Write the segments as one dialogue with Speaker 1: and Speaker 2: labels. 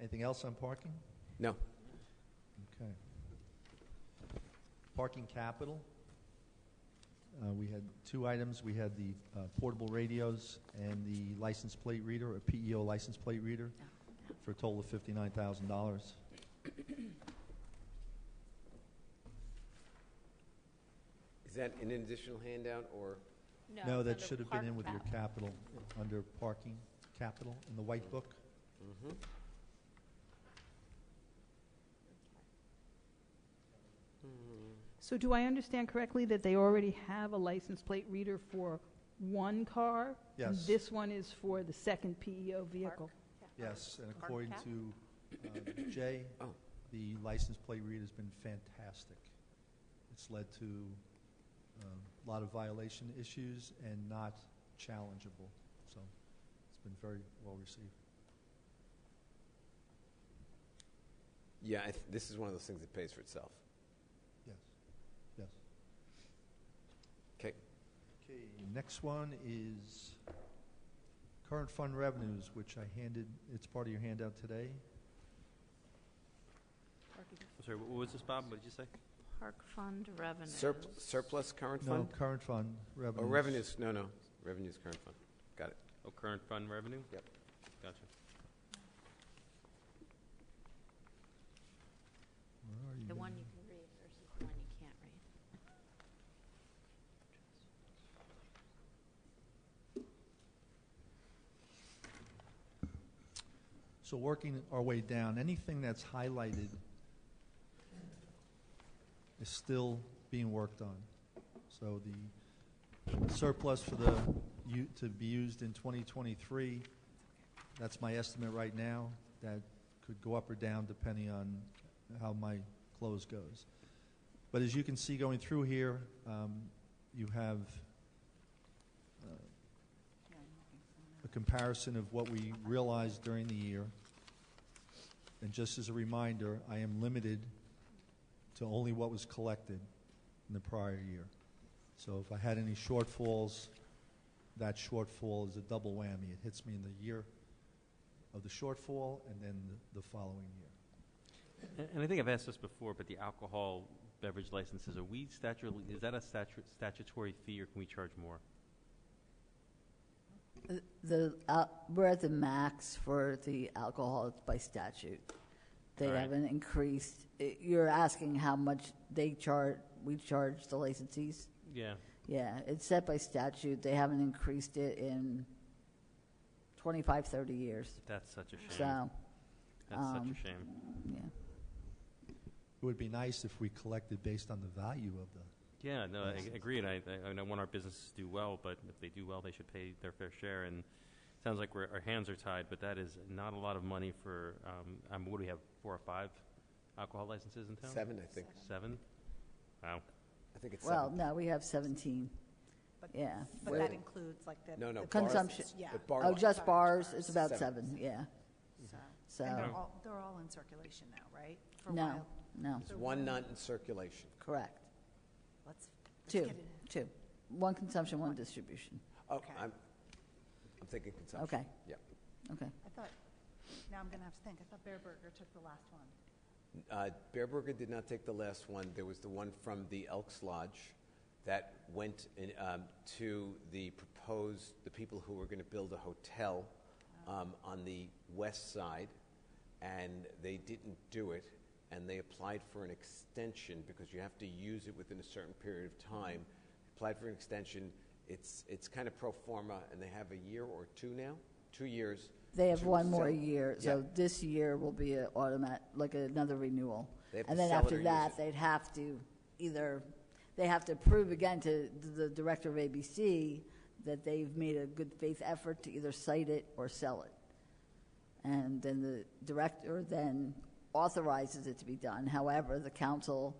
Speaker 1: Anything else on parking?
Speaker 2: No.
Speaker 1: Okay. Parking capital. Uh, We had two items. We had the uh, portable radios and the license plate reader, or PEO license plate reader, for a total of $59,000.
Speaker 2: Is that an additional handout or?
Speaker 1: No,
Speaker 3: it's
Speaker 1: that
Speaker 3: under
Speaker 1: should have
Speaker 3: park
Speaker 1: been in with your
Speaker 3: map.
Speaker 1: capital, under parking capital in the white book.
Speaker 2: Mm-hmm.
Speaker 4: So do I understand correctly that they already have a license plate reader for one car? and
Speaker 1: Yes.
Speaker 4: This one is for the second PEO vehicle?
Speaker 1: Yes, and
Speaker 3: Park
Speaker 1: according
Speaker 3: cap?
Speaker 1: to uh, Jay,
Speaker 2: Oh.
Speaker 1: the license plate reader's been fantastic. It's led to um, a lot of violation issues and not challengeable, so it's been very well received.
Speaker 2: Yeah, I th- this is one of those things that pays for itself.
Speaker 1: Yes, yes.
Speaker 2: 'Kay.
Speaker 1: Okay, next one is current fund revenues, which I handed, it's part of your handout today.
Speaker 3: Parking-
Speaker 5: I'm sorry, what what was this, Bob? What did you say?
Speaker 3: Park fund revenues.
Speaker 2: Surp- Surplus current
Speaker 1: No,
Speaker 2: fund?
Speaker 1: current fund
Speaker 2: Or
Speaker 1: revenues.
Speaker 2: revenues, no, no, revenues current fund.
Speaker 5: Oh, current fund revenue?
Speaker 2: Yep.
Speaker 5: Gotcha.
Speaker 1: Where are you?
Speaker 3: The one you can read versus the one you can't read.
Speaker 1: So working our way down, anything that's highlighted is still being worked on. So the surplus for the, u- to be used in 2023, that's my estimate right now. That could go up or down depending on how my close goes. But as you can see going through here, um, you have uh, a comparison of what we realized during the year. And just as a reminder, I am limited to only what was collected in the prior year. So if I had any shortfalls, that shortfall is a double whammy. It hits me in the year of the shortfall and then the- the following year.
Speaker 5: And- And I think I've asked this before, but the alcohol beverage licenses, are we statu, is that a statu- statutory fee, or can we charge more?
Speaker 6: The, uh, we're at the max for the alcohol by statute. They
Speaker 5: All right.
Speaker 6: haven't increased, i- you're asking how much they charge, we charge the licensees?
Speaker 5: Yeah.
Speaker 6: Yeah, it's set by statute, they haven't increased it in 25, 30 years,
Speaker 5: That's such a shame.
Speaker 6: so,
Speaker 5: That's such
Speaker 6: um,
Speaker 5: a shame.
Speaker 6: yeah.
Speaker 1: It would be nice if we collected based on the value of the
Speaker 5: Yeah, no, I I agree, and I, I- and I want our businesses to do well, but if they do well, they should pay their fair share, and it sounds like we're, our hands are tied, but that is not a lot of money for, um, um, what do we have, four or five alcohol licenses in town?
Speaker 2: Seven, I think.
Speaker 5: Seven? Wow.
Speaker 2: I think it's
Speaker 6: Well,
Speaker 2: seven.
Speaker 6: no, we have 17,
Speaker 7: But-
Speaker 6: yeah.
Speaker 7: But that includes like the.
Speaker 2: No, no,
Speaker 7: the
Speaker 2: bars.
Speaker 6: Consumption.
Speaker 7: Yeah.
Speaker 2: But bar
Speaker 6: Oh,
Speaker 2: li-
Speaker 6: just bars, it's
Speaker 7: Bars.
Speaker 6: about
Speaker 2: Seven.
Speaker 6: seven, yeah,
Speaker 3: So,
Speaker 6: so,
Speaker 7: And they're all, they're all in circulation now, right? For a
Speaker 6: no,
Speaker 7: while.
Speaker 6: no,
Speaker 2: There's one not in circulation.
Speaker 6: correct.
Speaker 7: Let's, let's
Speaker 6: Two,
Speaker 7: get it.
Speaker 6: two. One consumption, one distribution,
Speaker 2: Oh,
Speaker 7: Okay.
Speaker 2: I'm, I'm thinking consumption.
Speaker 6: okay,
Speaker 2: Yeah.
Speaker 6: okay.
Speaker 7: I thought, now I'm gonna have to think, I thought Bear Burger took the last one.
Speaker 2: Uh, Bear Burger did not take the last one. There was the one from the Elks Lodge that went in, um, to the proposed, the people who were going to build a hotel um, on the west side, and they didn't do it, and they applied for an extension because you have to use it within a certain period of time. Applied for an extension. It's, it's kind of pro forma, and they have a year or two now, two years.
Speaker 6: They have
Speaker 2: to
Speaker 6: one more
Speaker 2: sell-
Speaker 6: year,
Speaker 2: Yeah.
Speaker 6: so this year will be an automat, like another renewal.
Speaker 2: They have
Speaker 6: And
Speaker 2: to
Speaker 6: then
Speaker 2: sell it or
Speaker 6: after
Speaker 2: use
Speaker 6: that,
Speaker 2: it.
Speaker 6: they'd have to either, they have to prove again to the director of ABC that they've made a good faith effort to either cite it or sell it. And then the director then authorizes it to be done. However, the council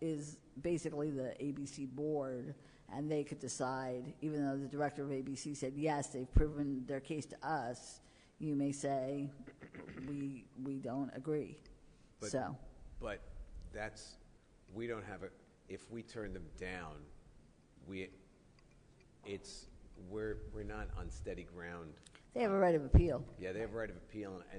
Speaker 6: is basically the ABC board, and they could decide, even though the director of ABC said, yes, they've proven their case to us, you may say, we, we don't agree.
Speaker 2: But-
Speaker 6: So,
Speaker 2: But that's, we don't have a, if we turn them down, we, it's, we're, we're not on steady ground.
Speaker 6: they have a right of appeal.
Speaker 2: Yeah, they have a right of appeal, and